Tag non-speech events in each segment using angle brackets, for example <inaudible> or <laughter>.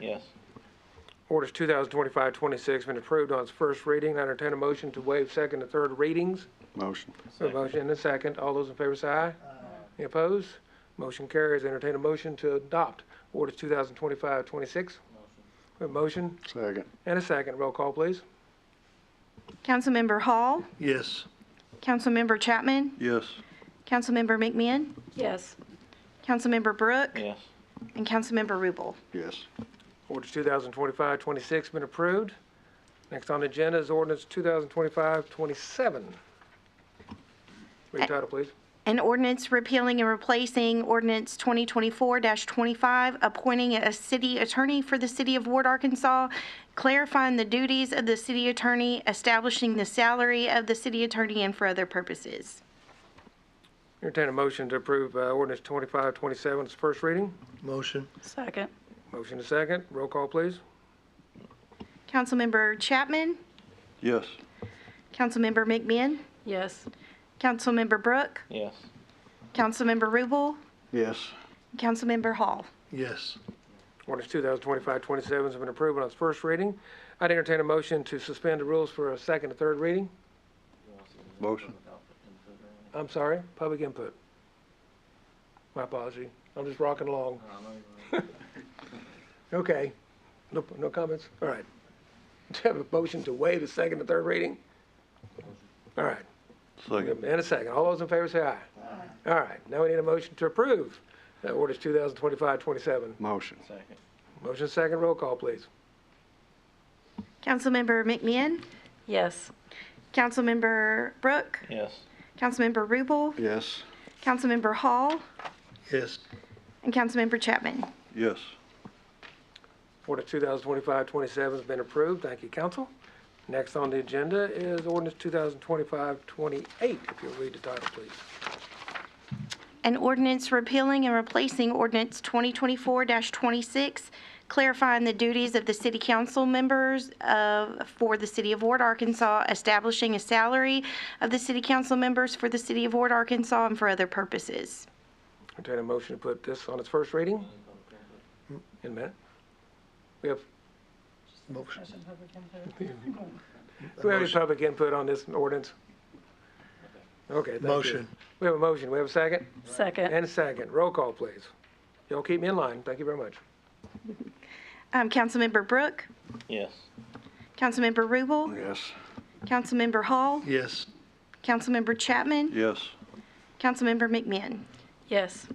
Yes. Orders 2025-26 been approved on its first reading. I entertain a motion to waive second and third readings. Motion. A motion and a second. All those in favor say aye. Any opposed? Motion carries. Entertain a motion to adopt orders 2025-26. We have a motion Second. and a second. Roll call, please. Councilmember Hall, Yes. Councilmember Chapman, Yes. Councilmember McMahon, Yes. Councilmember Brooke, Yes. and Councilmember Rubel. Yes. Orders 2025-26 been approved. Next on the agenda is ordinance 2025-27. Read title, please. An ordinance repealing and replacing ordinance 2024-25, appointing a city attorney for the city of Ward, Arkansas, clarifying the duties of the city attorney, establishing the salary of the city attorney, and for other purposes. Entertain a motion to approve uh, ordinance 25-27, its first reading. Motion. Second. Motion and second. Roll call, please. Councilmember Chapman, Yes. Councilmember McMahon, Yes. Councilmember Brooke, Yes. Councilmember Rubel, Yes. and Councilmember Hall. Yes. Ordinance 2025-27 has been approved on its first reading. I'd entertain a motion to suspend the rules for a second and third reading. Motion. I'm sorry, public input. My apology. I'm just rocking along. <laughs> Okay. No, no comments? All right. <laughs> Do you have a motion to waive the second and third reading? All right. Second. And a second. All those in favor say aye. Aye. All right. Now we need a motion to approve uh, ordinance 2025-27. Motion. Second. Motion second, roll call, please. Councilmember McMahon, Yes. Councilmember Brooke, Yes. Councilmember Rubel, Yes. Councilmember Hall, Yes. and Councilmember Chapman. Yes. Ordinance 2025-27 has been approved. Thank you, council. Next on the agenda is ordinance 2025-28, if you'll read the title, please. An ordinance repealing and replacing ordinance 2024-26, clarifying the duties of the city council members of, for the city of Ward, Arkansas, establishing a salary of the city council members for the city of Ward, Arkansas, and for other purposes. Entertain a motion to put this on its first reading? In a minute. We have, Motion. do we have any public input on this ordinance? Okay, thank you. Motion. We have a motion. We have a second? Second. And a second. Roll call, please. Y'all keep me in line. Thank you very much. Um, Councilmember Brooke, Yes. Councilmember Rubel, Yes. Councilmember Hall, Yes. Councilmember Chapman, Yes. Councilmember McMahon. Yes.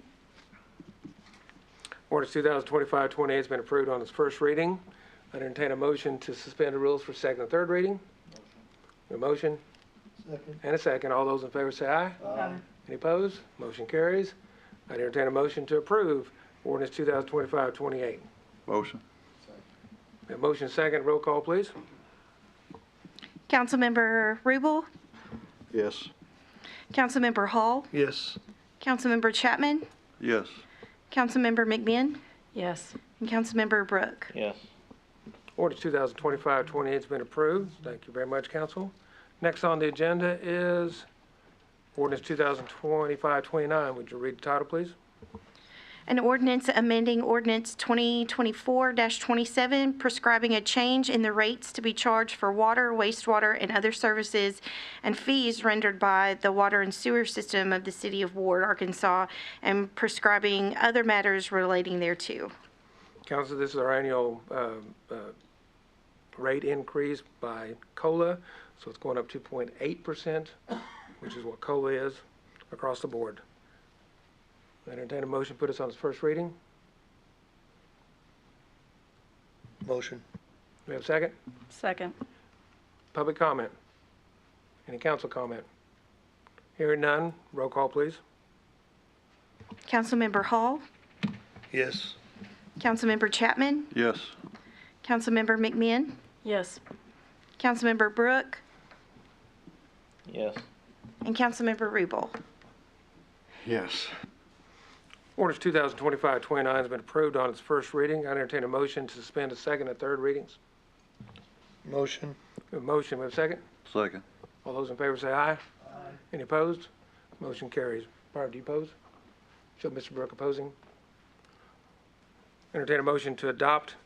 Ordinance 2025-28 has been approved on its first reading. I entertain a motion to suspend the rules for second and third reading. A motion? And a second. All those in favor say aye. Aye. Any opposed? Motion carries. I entertain a motion to approve ordinance 2025-28. Motion. A motion second, roll call, please. Councilmember Rubel, Yes. Councilmember Hall, Yes. Councilmember Chapman, Yes. Councilmember McMahon, Yes. and Councilmember Brooke. Yes. Ordinance 2025-28 has been approved. Thank you very much, council. Next on the agenda is ordinance 2025-29. Would you read the title, please? An ordinance amending ordinance 2024-27 prescribing a change in the rates to be charged for water, wastewater, and other services and fees rendered by the water and sewer system of the city of Ward, Arkansas, and prescribing other matters relating thereto. Council, this is our annual um, uh, rate increase by COLA, so it's going up 2.8%, which is what COLA is across the board. Entertain a motion, put us on its first reading. Do Motion. we have a second? Second. Public comment? Any council comment? Hearing none, roll call, please. Councilmember Hall, Yes. Councilmember Chapman, Yes. Councilmember McMahon, Yes. Councilmember Brooke, Yes. and Councilmember Rubel. Yes. Ordinance 2025-29 has been approved on its first reading. I entertain a motion to suspend the second and third readings. Motion. We have a motion, we have a second? Second. All those in favor say aye. Any opposed? Motion carries. Barb, do you oppose? Show Mr. Brooke opposing. Entertain a motion to adopt